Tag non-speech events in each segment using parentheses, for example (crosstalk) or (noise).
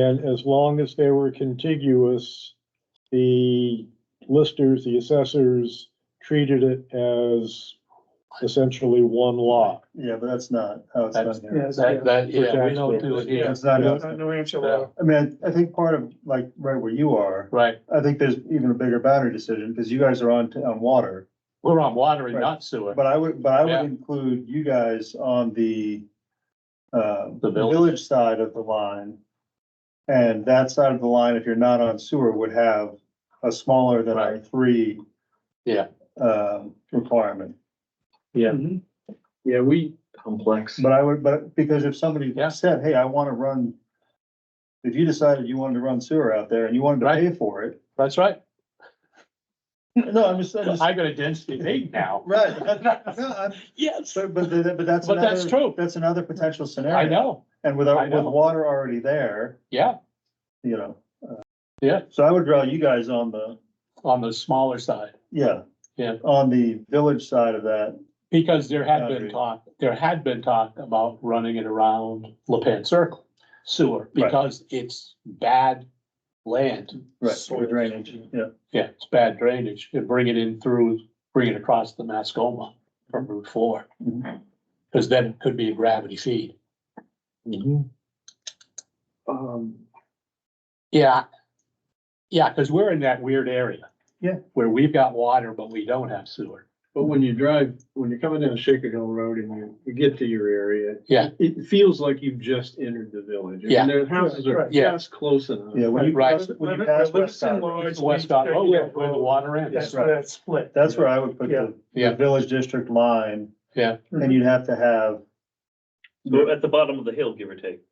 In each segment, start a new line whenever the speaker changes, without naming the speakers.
And as long as they were contiguous, the listers, the assessors treated it as essentially one lot.
Yeah, but that's not how it's
That's-
done here.
That, that, yeah, we don't do it
Yeah,
here,
It's not, how it's
Yeah.
done.
New Hampshire
law.
law.
I mean, I I think part of, like, right where you are,
right?
I think there's even a bigger boundary decision, because you guys are on, t- on water.
We're on water and
Right.
not sewer.
But I would, but I
Yeah.
would include you guys on the, uh,
The village.
village side of the line. And that side of the line, if you're not on sewer, would have a smaller than our three.
Yeah.
Um, requirement.
Mm-hmm.
Yeah, we. Complex.
But I would, but because if somebody
Yeah.
said, hey, I wanna run. If you decided you wanted to run sewer out there and you wanted to
Right.
pay for it,
That's right.
no, I'm just, I'm just.
I got a density eight now.
(laughs) Right, no, I'm,
(laughs) Yes,
but, but, the- but that's
But that's
another,
true.
that's another potential scenario.
I know,
And with our,
I
with
know.
water already there,
yeah,
you know. uh,
Yeah.
So I would draw you guys on the,
on the smaller side,
yeah.
Yeah.
On the village side of that,
because there had been
Boundary.
talk, there had been talk about running it around La Pan Circle sewer,
Right.
because it's bad land.
right, for drainage, yeah.
Yeah, it's bad drainage, and bring it in through, bring it across the Mascoma from Route Four.
Mhm.
Cause then it could be a gravity feed.
Um,
Yeah. Yeah, because we're in that weird area.
Yeah.
Where we've got water, but we don't have sewer.
but when you drive, when you're coming down Shaker Hill Road and you, you get to your area.
Yeah.
It feels like you've just entered the village. I mean,
Yeah.
Their houses are
Right.
Yeah.
just close enough.
Yeah, when you,
Right.
pass- when you pass West Side,
Oh,
It's West Dot Road,
Yeah.
where the water
That's
ends.
right.
that split.
that's where I would put the,
Yeah.
the village district line.
Yeah.
And you'd have to have,
We're at the bottom of the hill, give or take.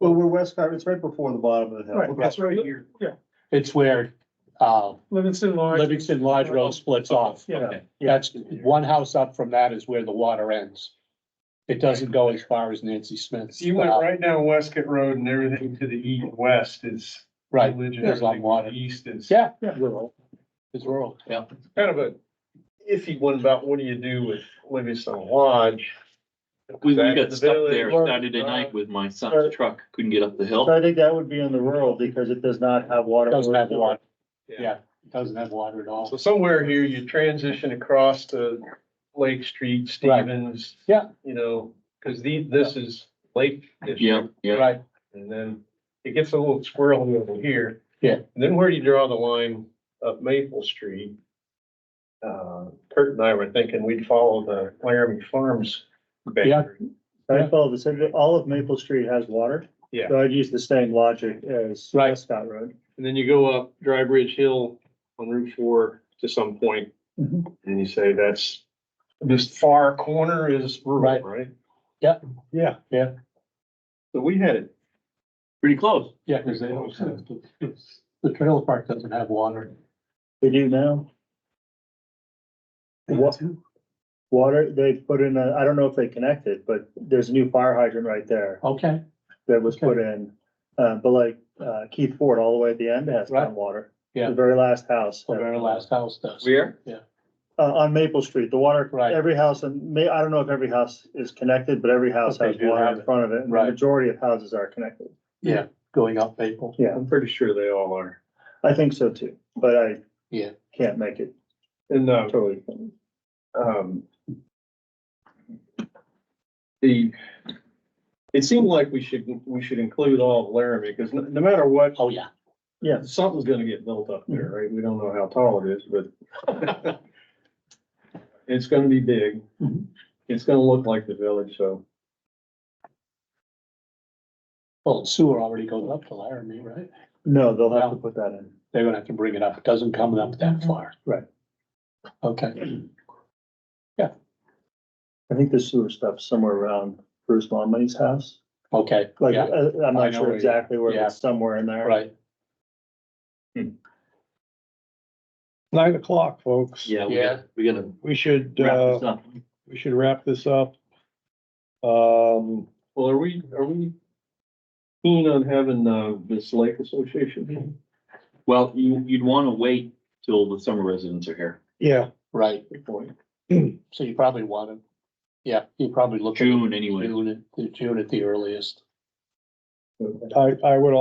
well, we're West Side, it's right before the bottom of the hill.
Right, that's right here. Yeah,
It's where, uh,
Livingston Lodge.
Livingston Lodge Road splits off.
Yeah,
That's, one house up from that is where the water ends. It doesn't go as far as Nancy Smith's.
So you went
uh,
right down Westcott Road and everything to the east, west is.
Right,
village and
there's a lot of
everything to
water.
the East is.
Yeah.
Yeah.
Rural. It's rural, yeah.
Kind of a iffy one about what do you do with Livingston Lodge?
We, we
Back to
got
the
stuck there
village.
Saturday night with my
Right.
son's truck, couldn't get up the
So
hill.
I think that would be in the rural because it does not have water.
Doesn't have water. Yeah, it doesn't have water at all.
So somewhere here, you transition across to Lake Street,
Right.
Stevens.
Yeah.
You know, because the, this is Lake
Yeah,
District,
yeah.
Right,
and then it gets a little squirrely over here.
Yeah.
And then where do you draw the line up Maple Street? Uh, Kurt and I were thinking we'd follow the Laramie Farms. boundary.
I follow the same, all of Maple Street has water.
Yeah.
So I'd use the same logic as
Right.
Scott Road.
And then you go up Dry Bridge Hill on Route Four to some point,
Mhm.
And you say that's, this far corner is rural,
Right.
right?
yeah, yeah,
So we had it.
Pretty close.
yeah, because they don't have, it's- the trailer park doesn't have water.
They do now. Wa- water, they put in a, I don't know if they connected, but there's a new fire hydrant right there
Okay,
that was put in. Uh, but like, uh, Keith Ford, all the way at the end has
Right.
groundwater.
Yeah.
The very last house.
the very last house does.
Where?
Uh, on Maple Street, the water,
Right.
every house, and may, I don't know if every house is connected, but every house
But they
has
do
water
have
in
it.
front of it. and the
Right.
Majority of houses are connected.
Yeah, going up Maple.
I'm pretty sure they all are.
I think so too, but I.
Yeah.
Can't make it
And, uh,
totally.
um, the, it seemed like we should, we should include all of Laramie, because no, no matter what,
Oh, yeah,
Yes, Mhm.
something's gonna get built up there, right? We don't know how tall it is, but (laughs) it's gonna be big.
Mm-hmm.
Mhm.
It's gonna look like the village, so.
well, sewer already goes up to Laramie, right?
no, they'll have to put that in.
They're gonna have to bring it up, it doesn't come up that far.
Right.
Okay,
I think the sewer stuff's somewhere around Bruce Longmoney's house.
okay,
Like,
yeah,
uh, I'm
I
not
know
sure
where you-
exactly where,
yeah.
but it's somewhere in there.
right,
Nine o'clock, folks.
Yeah, we
Yeah.
gotta, we gotta
We should,
wrap
uh,
this up.
we should wrap this up. Um,
Well, are we, are we keen on having, uh, this lake association?
Well, you, you'd wanna wait till the summer residents are here.
yeah,
right,
Good point.
so you probably want to, yeah, you probably look. at
June anyway.
June, at- June at the earliest.
Okay.
I, I would